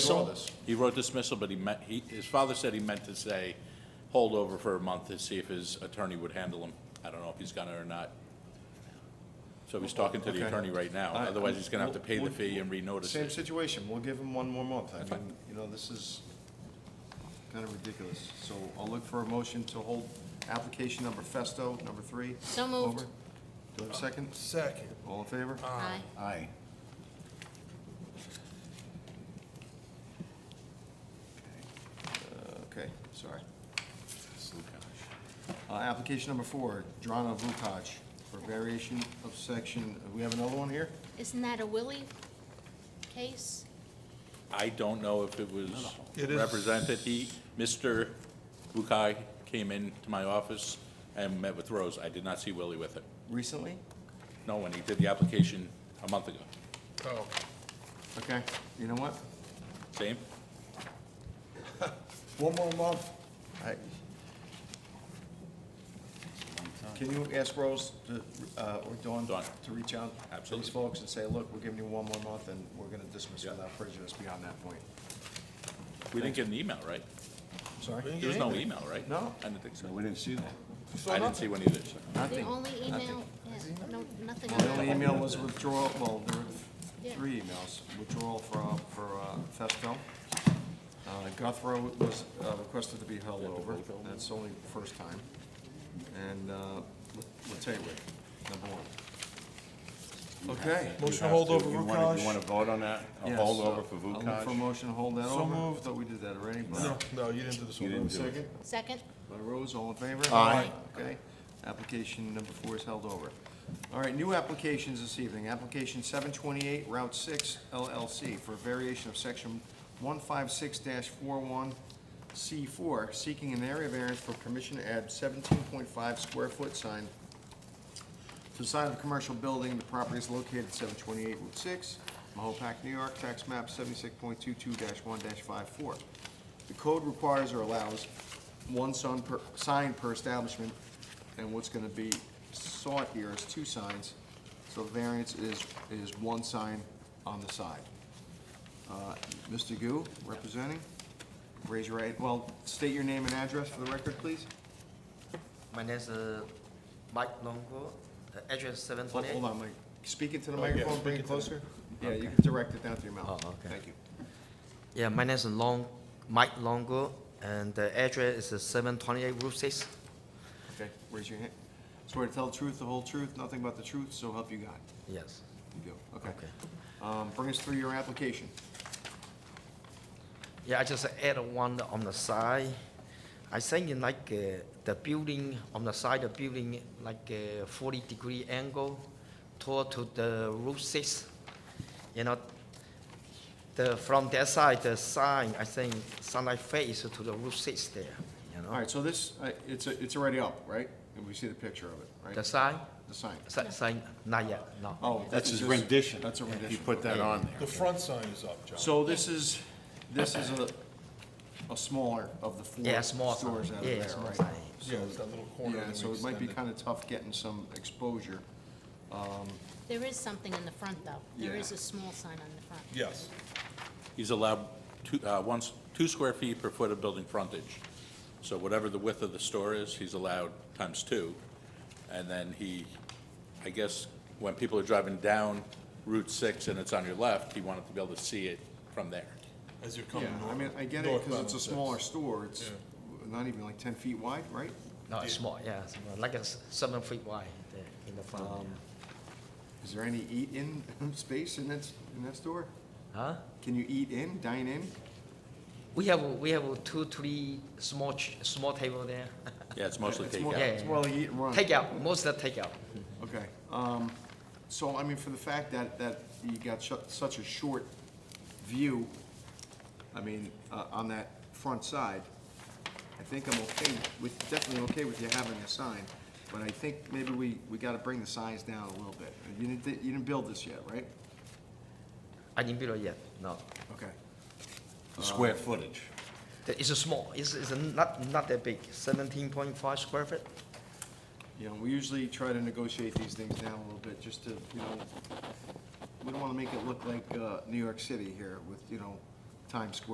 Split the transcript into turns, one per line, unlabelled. So-
He wrote dismissal, but he meant, he, his father said he meant to say hold over for a month to see if his attorney would handle him. I don't know if he's gonna or not. So he's talking to the
Okay.
attorney right now,
I-
otherwise he's gonna have to pay the
we'll-
fee and renotice
Same
it.
situation, we'll give him one more month. I
That's fine.
mean, you know, this is kind of ridiculous. So I'll look for a motion to hold application number Festo, number three.
So moved.
over. Do I have a second?
Second.
All in favor?
Aye.
Aye. Uh, Okay, sorry. Uh, Application number four, Drana Vukaj, for variation of section, we have another one here?
Isn't that a Willie case?
I don't know if it was
It is-
represented. He, Mr. Bukai came into my office and met with Rose. I did not see Willie with him.
Recently?
No, when he did the application a month ago.
Oh,
Okay, you know what?
Same?
one more month.
I- Can you ask Rose to, uh, or Dawn?
Dawn.
To reach out? to These
Absolutely.
folks and say, look, we're giving you one more month and we're gonna dismiss
Yeah.
without prejudice beyond that point.
We didn't get an email, right?
Sorry?
There was no email, right?
No.
I didn't think so.
we didn't see that.
I didn't see one either, so.
The
Nothing.
only email, yeah, no, nothing. on
The only
that.
email was withdrawal, well, there were
Yeah.
three emails, withdrawal for, uh, for uh, Festo. Uh, Guthrow was uh, requested to be held over, that's only the first time. And uh, Lataywick, number one. Okay.
Motion to hold over
You
Prakash?
want to vote on that? A
Yes.
holdover for
I'll look for a
Vukaj?
motion to hold that
So
over.
moved.
Thought we did that already, but.
No, no, you didn't do this
You
one.
didn't do it.
Second,
Second,
by Rose, all in favor?
Aye.
Okay, application number four is held over. All right, new applications this evening, application seven twenty-eight Route Six LLC for a variation of section one five six 41 C four, seeking an area variance for permission to add seventeen point five square foot sign to the side of a commercial building, the property is located at seven twenty-eight Route six, Mahopac, New York, tax map seventy-six point two-two one 54 The code requires or allows one sign per, sign per establishment, and what's gonna be sought here is two signs, so the variance is, is one sign on the side. Uh, Mr. Gu, representing, raise your right, well, state your name and address for the record, please.
My name is uh, Mike Longo, the address seven
Hold
twenty eight.
hold on, Mike, speak into the microphone, bring it closer. Yeah, you
Okay.
can direct it down to your mouth.
Oh, okay.
Thank you.
Yeah, my name is Long, Mike Longo, and the address is seven twenty eight Route Six.
Okay, raise your hand. Swear to tell the truth, the whole truth, nothing but the truth, so help you God.
Yes.
You do, okay.
Okay.
Um, Bring us through your application.
Yeah, I just add one on the side. I think in like uh, the building on the side of building like a forty degree angle toward to the Route Six. You know, the from that side, the sign I think sunlight face to the Route Six there. You know,
All right, so this, uh, it's, it's already up, right? And we see the picture of it, right?
the sign.
The sign.
Si- Sign, not yet, no.
Oh,
That's
this
his
is-
rendition.
That's a
He
rendition.
put that on
The
there.
front sign is up, John.
So this is, this is a, a smaller of the four
Yeah, small sign.
stores out of
Yeah,
there,
small
right?
sign.
Yeah, it's that little corner.
Yeah,
that we
so it might be
extended.
kind of tough getting some exposure.
there is something in the front, though. There
Yeah.
is a small sign on the front.
Yes.
He's allowed two, uh, once, two square feet per foot of building frontage. So whatever the width of the store is, he's allowed times two. And then he, I guess, when people are driving down Route Six and it's on your left, he wanted to be able to see it from there.
As you're coming
Yeah,
north.
I mean, I get it,
northbound
because it's a
on six.
smaller store, it's
Yeah.
not even like ten feet wide, right?
No, it's small, yeah, it's small, like a s- seven feet wide there in the front.
Um, Is there any eat-in space in that, in that store?
Huh?
Can you eat in, dine in?
We have, we have two, three small, ch- small table there.
Yeah, it's mostly
It's more-
takeout.
Yeah.
It's more like eat and run.
Takeout, most of the takeout.
Okay, um, so, I mean, for the fact that, that you got su- such a short view, I mean, uh, on that front side, I think I'm okay with, definitely okay with you having a sign, but I think maybe we, we gotta bring the signs down a little bit. You didn't, you didn't build this yet, right?
I didn't build it yet, no.
Okay.
The Square
uh,
footage.
The- It's a small, it's, it's a not, not that big, seventeen point five square foot.
You know, we usually try to negotiate these things down a little bit, just to, you know, we don't wanna make it look like, uh, New York City here with, you know, Times Square